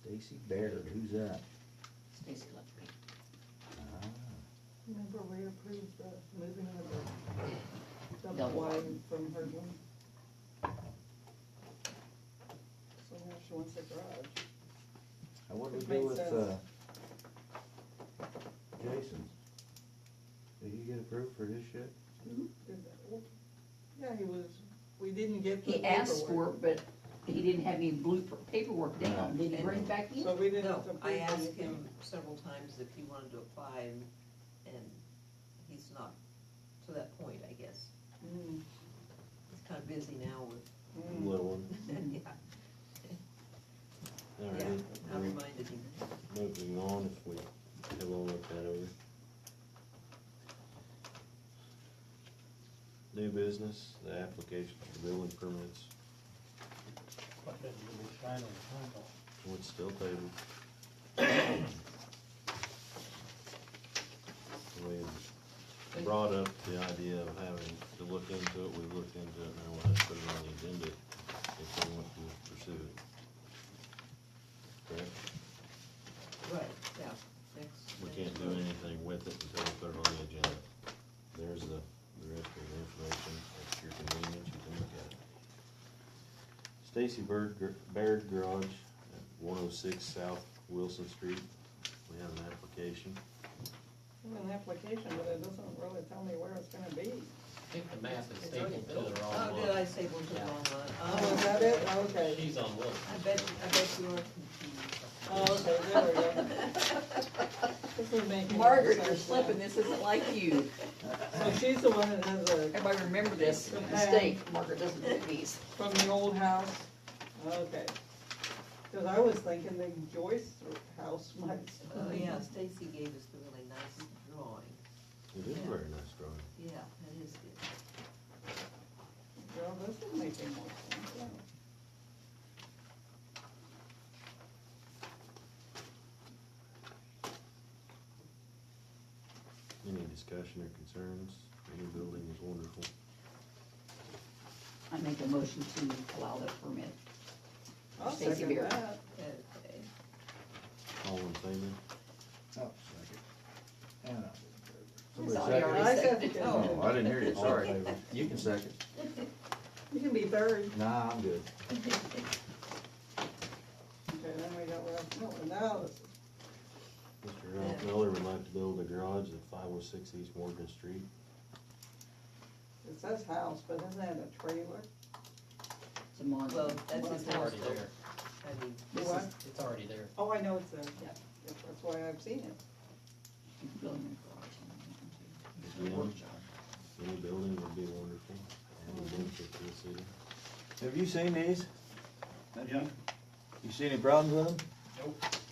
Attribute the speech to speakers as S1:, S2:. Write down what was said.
S1: Stacy Baird, who's that?
S2: Stacy left me.
S1: Ah,
S3: Remember we approved the moving of the
S2: Double
S3: double
S2: wide.
S3: wide from her one? So now she wants a garage.
S1: Now what do we
S3: Which
S1: do
S3: makes
S1: with,
S3: sense.
S1: uh, Jason? Did he get approved for his shit?
S3: Did that- well, Yeah, he was, we didn't get the
S2: He asked for
S3: paperwork.
S2: it, but he didn't have any blueprint paperwork down, did he bring it back
S3: So
S2: in?
S3: we didn't
S4: No,
S3: approve
S4: I asked
S3: anything.
S4: him several times if he wanted to apply, and, and he's not to that point, I guess.
S3: Mm,
S4: He's kind of busy now with,
S3: mm.
S5: one.
S4: yeah,
S5: All
S4: yeah,
S5: right,
S4: I reminded him.
S5: moving on if we have all looked that over. New business, the applications for building permits,
S6: But then you would sign on the front door.
S5: would still table. We brought up the idea of having to look into it, we looked into it, now we'll have to put it on the agenda if we want to pursue it. Correct?
S4: Right, yeah, next.
S5: We
S4: next
S5: can't do
S4: month.
S5: anything with it until we put it on the agenda. There's the, the rest of the information, at your convenience, you can look at it. Stacy Bird, Gar- Baird Garage at one oh six South Wilson Street, we have an application.
S3: I have An application, but it doesn't really tell me where it's gonna be.
S7: I think the map is
S4: It's
S7: taken
S4: already
S7: to the
S4: built.
S7: wrong
S4: Oh, did I
S7: one.
S4: say one to the
S7: Yeah.
S4: wrong one?
S3: Oh, is that it? Okay.
S7: She's on Wilson.
S4: I bet, I bet uh, you are confused.
S3: Oh, okay, there we go. This is making.
S2: Margaret,
S3: sense
S2: you're slipping,
S3: now.
S2: this isn't like you.
S3: So she's the one that has a
S2: Everybody remember this
S3: Okay.
S2: mistake, Margaret doesn't do these.
S3: From the old house, okay. Cause I was thinking the Joyce house might.
S4: Oh, yeah, Stacy gave us the really nice drawing,
S5: It is a very nice drawing.
S4: yeah, that is good.
S3: Well, this is making more sense, yeah.
S5: Any discussion or concerns, any building is wonderful.
S2: I make a motion to allow that permit.
S3: I'll
S2: Stacy
S3: second
S2: Beer.
S3: that.
S4: Okay.
S5: All in favor?
S1: Oh, second. And uh, I'll
S2: That's all
S1: Somebody
S2: you already
S3: I
S2: said.
S3: seconded it.
S1: Oh, I didn't hear you,
S5: All in
S1: sorry.
S5: favor?
S1: You can second.
S3: You can be third.
S1: Nah, I'm good.
S3: Okay, then we got Ralph Miller, now this is,
S5: Mr. Ralph Miller would like to build a garage at five oh six East Morgan Street.
S3: it says house, but isn't that a trailer?
S2: It's a mon-
S4: Well, that's his
S7: It's
S4: house,
S7: already
S4: though.
S7: there.
S4: I mean,
S3: The
S4: this
S3: what?
S4: is,
S7: It's already there.
S3: Oh, I know it's a,
S2: Yeah.
S3: that's why I've seen it.
S2: building a garage on that one, too.
S5: Yeah.
S2: Workshop.
S5: Any building would be wonderful, adding benefit to the city. Have you seen these?
S1: You see any problems with them?
S7: Nope.